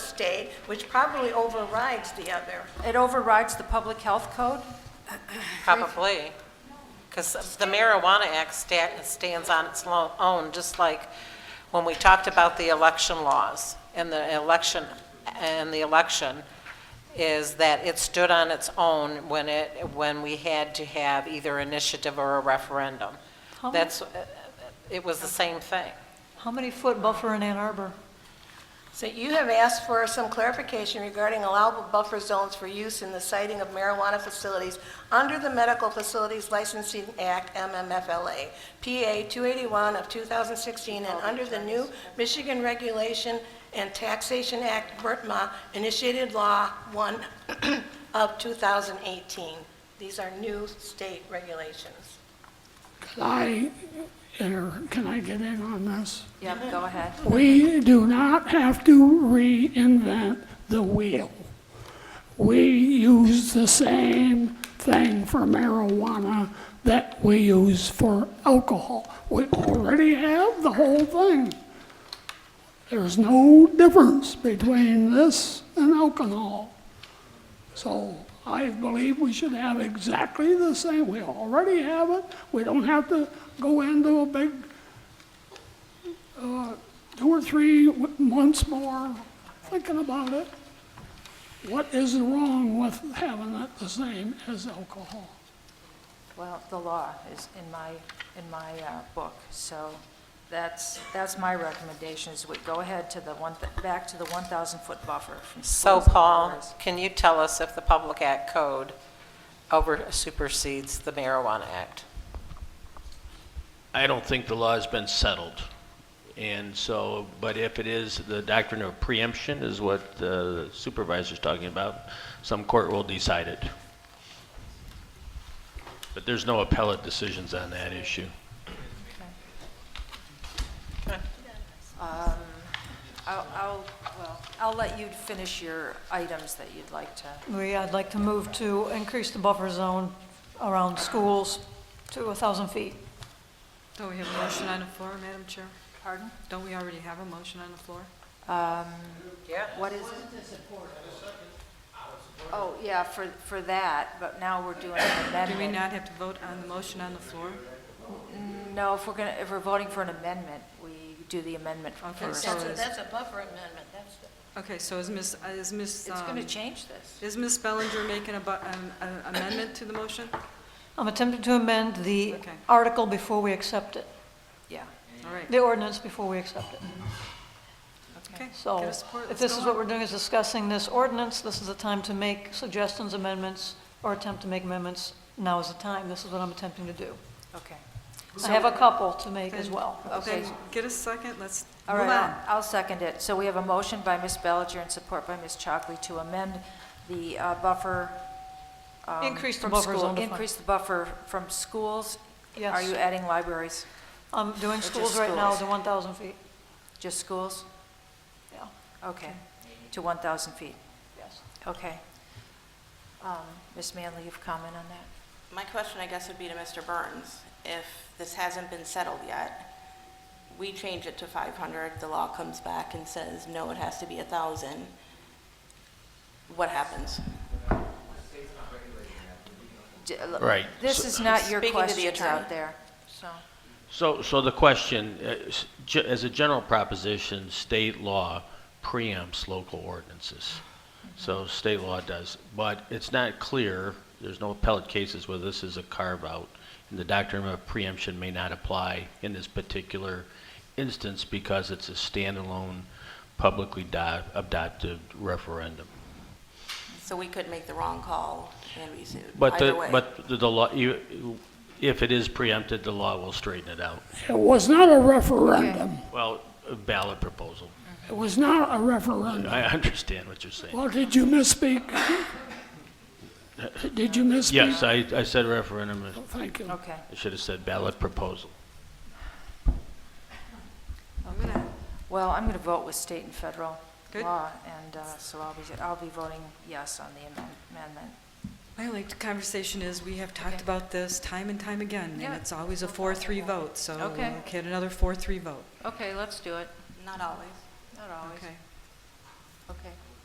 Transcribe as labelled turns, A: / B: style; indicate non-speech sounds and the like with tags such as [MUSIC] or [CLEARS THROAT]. A: state, which probably overrides the other.
B: It overrides the public health code?
C: Probably, because the Marijuana Act sta- stands on its lo- own, just like when we talked about the election laws and the election, and the election, is that it stood on its own when it, when we had to have either initiative or a referendum.
D: How many,
C: That's, uh, it was the same thing.
D: how many foot buffer in Ann Arbor?
A: So you have asked for some clarification regarding allowable buffer zones for use in the siting of marijuana facilities under the Medical Facilities Licensing Act, MMFLA, PA 281 of 2016, and under the new Michigan Regulation and Taxation Act, BRTMA, initiated Law 1 [CLEARS THROAT] of 2018. These are new state regulations.
E: Can I, inter can I get in on this?
B: Yep,
F: Mm-hmm.
B: go ahead.
E: We do not have to reinvent the wheel. We use the same thing for marijuana that we use for alcohol. We already have the whole thing. There's no difference between this and alcohol. So I believe we should have exactly the same. We already have it. We don't have to go into a big two or three w- months more thinking about it. What is wrong with having it the same as alcohol?
B: Well, the law is in my, in my uh, book, so that's, that's my recommendation, is we go ahead to the one, th- back to the 1,000-foot buffer from
C: So
B: schools and
C: Paul,
B: libraries.
C: can you tell us if the Public Act Code over supersedes the Marijuana Act?
G: I don't think the law has been settled. And so, but if it is, the doctrine of preemption is what the supervisor's talking about, some court will decide it. But there's no appellate decisions on that issue.
B: I'll, I'll, well, I'll let you finish your items that you'd like to.
D: We, I'd like to move to increase the buffer zone around schools to 1,000 feet.
F: Don't we have a motion on the floor, Madam Chair?
B: Pardon?
F: Don't we already have a motion on the floor?
C: Yeah.
B: What is it? Oh, yeah, for, for that, but now we're doing an
F: Do we
B: amendment.
F: not have to vote on the motion on the floor?
B: No, if we're gonna, if we're voting for an amendment, we do the amendment
F: Okay,
B: first.
F: so-
A: That's a,
F: is-
A: that's a buffer amendment, that's,
F: Okay, so is Ms., uh, is Ms.,
B: It's gonna
F: um,
B: change this.
F: is Ms. Bellinger making a bu- an an amendment to the motion?
D: I'm attempting to amend the
F: Okay.
D: article before we accept it,
B: Yeah.
F: All right,
D: the ordinance before we accept it.
F: okay.
D: So
F: Get a support,
D: if
F: let's
D: this
F: go
D: is what
F: on.
D: we're doing, is discussing this ordinance, this is the time to make suggestions, amendments, or attempt to make amendments. Now is the time. This is what I'm attempting to do.
B: Okay.
D: I have a couple to make as well.
B: Okay.
F: Then get a second, let's
B: All
F: move
B: right,
F: on.
B: I'll- I'll second it. So we have a motion by Ms. Bellinger and support by Ms. Chalkley to amend the uh, buffer. um,
D: Increase the
B: from
D: buffer
B: school-
D: zone to five.
B: Increase the buffer from schools. Are
D: Yes.
B: you adding libraries?
D: I'm doing
B: Which is
D: schools right now
B: schools.
D: to 1,000 feet.
B: Just schools?
D: Yeah,
B: Okay. To 1,000 feet.
D: yes.
B: Okay. Um, Ms. Manley, you've comment on that?
H: My question, I guess, would be to Mr. Burns. If this hasn't been settled yet, we change it to 500, the law comes back and says, no, it has to be 1,000. What happens?
B: D- l-
G: Right.
B: This
G: So-
B: is not your
H: Speaking to the
B: questions
H: attorney.
B: out there, so.
G: So, so the question, uh, s- ge- as a general proposition, state law preempts local ordinances. So state law does, but it's not clear, there's no appellate cases where this is a carve-out, and the doctrine of preemption may not apply in this particular instance because it's a standalone, publicly do- adopted referendum.
H: So we could make the wrong call and be sued,
G: But
H: either
G: the,
H: way.
G: but the- the law, you- if it is preempted, the law will straighten it out.
E: It was not a referendum.
G: Well, a ballot proposal.
E: It was not a referendum.
G: I understand what you're saying.
E: Well, did you misspeak? Did you misspeak?
G: Yes, I, I said referendum.
E: Thank you.
B: Okay.
G: I should have said ballot proposal.
B: Okay. Well, I'm going to vote with state and federal
F: Good.
B: law, and uh, so I'll be, I'll be voting yes on the amend- amendment.
F: I like the conversation is, we have
B: Okay.
F: talked about this time and time again,
B: Yeah.
F: and it's always a 4-3 vote, so we'll
B: Okay.
F: get another 4-3 vote.
B: Okay, let's do it.
H: Not always.
B: Not always.
F: Okay.
B: Okay.